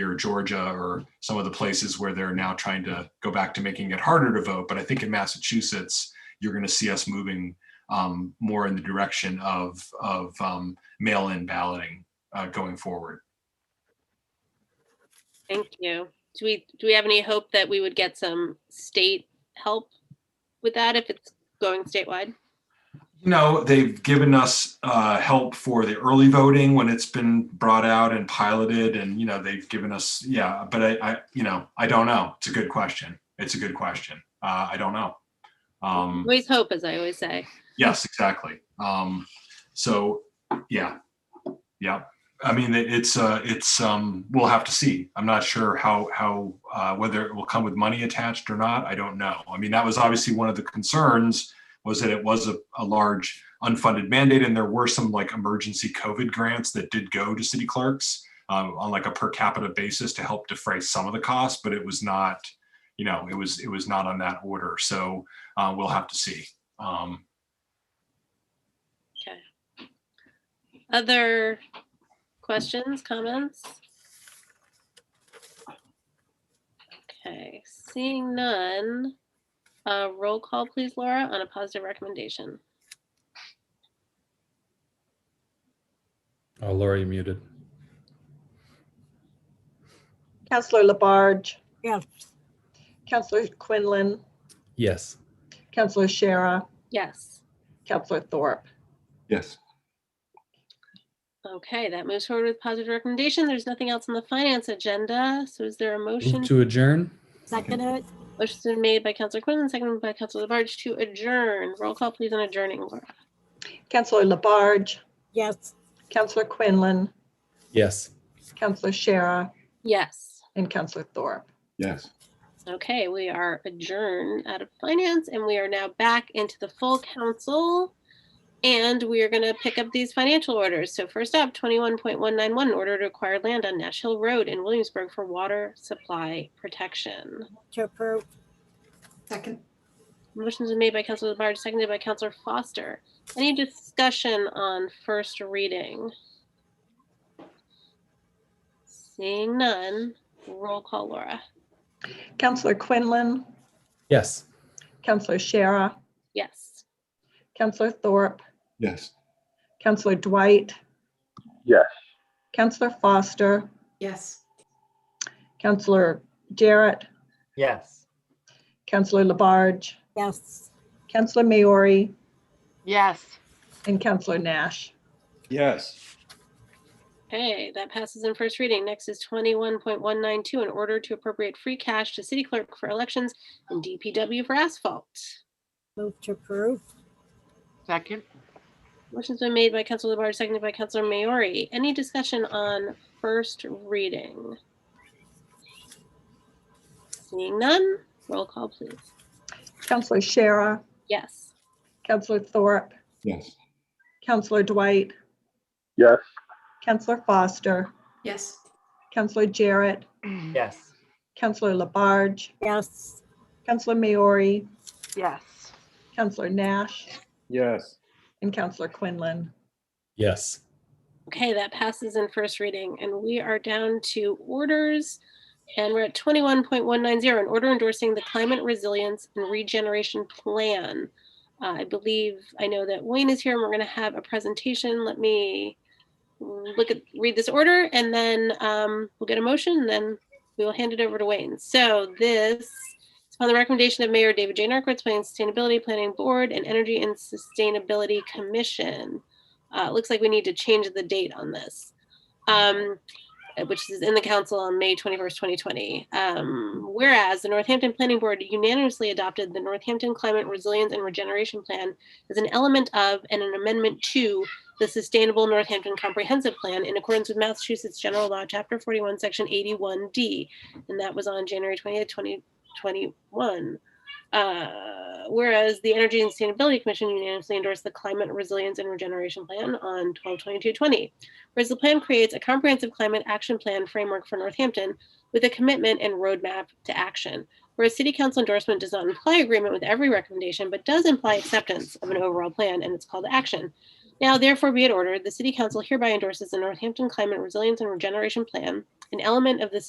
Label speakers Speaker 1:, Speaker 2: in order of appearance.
Speaker 1: or Georgia or some of the places where they're now trying to go back to making it harder to vote. But I think in Massachusetts, you're going to see us moving um, more in the direction of of um, mail-in balloting uh, going forward.
Speaker 2: Thank you. Do we, do we have any hope that we would get some state help with that if it's going statewide?
Speaker 1: You know, they've given us uh, help for the early voting when it's been brought out and piloted, and you know they've given us yeah. But I, I you know, I don't know. It's a good question. It's a good question. Uh, I don't know. Um,
Speaker 2: Always hope, as I always say.
Speaker 1: Yes, exactly. Um, so yeah, yeah. I mean, it- it's uh, it's um, we'll have to see. I'm not sure how how uh, whether it will come with money attached or not. I don't know. I mean, that was obviously one of the concerns was that it was a, a large unfunded mandate, and there were some like emergency COVID grants that did go to city clerks um, on like a per capita basis to help defray some of the costs, but it was not, you know, it was it was not on that order. So uh, we'll have to see. Um,
Speaker 2: Other questions, comments? Okay, seeing none. Uh, roll call, please, Laura, on a positive recommendation.
Speaker 3: Oh, Laura, you muted.
Speaker 4: Counselor Labarge,
Speaker 5: Yes.
Speaker 4: Counselor Quinlan,
Speaker 3: Yes.
Speaker 4: Counselor Shara,
Speaker 2: Yes.
Speaker 4: Counselor Thorpe.
Speaker 6: Yes.
Speaker 2: Okay, that moves forward with positive recommendation. There's nothing else on the finance agenda. So is there a motion?
Speaker 3: Move to adjourn?
Speaker 5: Second it?
Speaker 2: Motion's been made by Counselor Quinlan, seconded by Counselor Labarge to adjourn. Roll call, please, on adjourning, Laura.
Speaker 4: Counselor Labarge,
Speaker 5: Yes.
Speaker 4: Counselor Quinlan,
Speaker 3: Yes.
Speaker 4: Counselor Shara,
Speaker 2: Yes.
Speaker 4: and Counselor Thorpe.
Speaker 6: Yes.
Speaker 2: Okay, we are adjourned out of finance and we are now back into the full council. And we are going to pick up these financial orders. So first up, 21.191, order to acquire land on Nash Hill Road in Williamsburg for water supply protection.
Speaker 5: To approve?
Speaker 7: Second,
Speaker 2: Motion's been made by Counselor Labarge, seconded by Counselor Foster. Any discussion on first reading? Seeing none, roll call Laura.
Speaker 4: Counselor Quinlan,
Speaker 3: Yes.
Speaker 4: Counselor Shara,
Speaker 2: Yes.
Speaker 4: Counselor Thorpe,
Speaker 6: Yes.
Speaker 4: Counselor Dwight.
Speaker 6: Yes.
Speaker 4: Counselor Foster,
Speaker 7: yes.
Speaker 4: Counselor Jarrett,
Speaker 8: Yes.
Speaker 4: Counselor Labarge,
Speaker 5: Yes.
Speaker 4: Counselor Maori,
Speaker 8: Yes.
Speaker 4: and Counselor Nash.
Speaker 6: Yes.
Speaker 2: Okay, that passes in first reading. Next is twenty-one point one nine two, in order to appropriate free cash to city clerk for elections and DPW for asphalt.
Speaker 5: Move to approve?
Speaker 8: Second,
Speaker 2: Motion's been made by Counselor Labarge, seconded by Counselor Maori. Any discussion on first reading? Seeing none, roll call please.
Speaker 4: Counselor Shara,
Speaker 2: Yes.
Speaker 4: Counselor Thorpe,
Speaker 6: Yes.
Speaker 4: Counselor Dwight.
Speaker 6: Yes.
Speaker 4: Counselor Foster,
Speaker 7: Yes.
Speaker 4: Counselor Jarrett,
Speaker 8: yes.
Speaker 4: Counselor Labarge,
Speaker 5: Yes.
Speaker 4: Counselor Maori,
Speaker 8: Yes.
Speaker 4: Counselor Nash,
Speaker 6: Yes.
Speaker 4: and Counselor Quinlan.
Speaker 3: Yes.
Speaker 2: Okay, that passes in first reading, and we are down to orders. And we're at twenty-one point one nine zero, an order endorsing the Climate Resilience and Regeneration Plan. Uh, I believe, I know that Wayne is here, and we're gonna have a presentation. Let me look at, read this order, and then um, we'll get a motion, and then we will hand it over to Wayne. So this is upon the recommendation of Mayor David J. Narcoitz, Planning and Sustainability Planning Board and Energy and Sustainability Commission. Uh, it looks like we need to change the date on this, um, which is in the council on May 21st, 2020. Um, whereas the Northampton Planning Board unanimously adopted the Northampton Climate Resilience and Regeneration Plan as an element of and an amendment to the Sustainable Northampton Comprehensive Plan in accordance with Massachusetts General Law, Chapter 41, Section 81D. And that was on January 20th, 2021. Uh, whereas the Energy and Sustainability Commission unanimously endorsed the Climate Resilience and Regeneration Plan on 12/22/20, whereas the plan creates a comprehensive climate action plan framework for Northampton with a commitment and roadmap to action. Whereas City Council endorsement does not imply agreement with every recommendation, but does imply acceptance of an overall plan and its call to action. Now, therefore, be it ordered, the City Council hereby endorses the Northampton Climate Resilience and Regeneration Plan, an element of the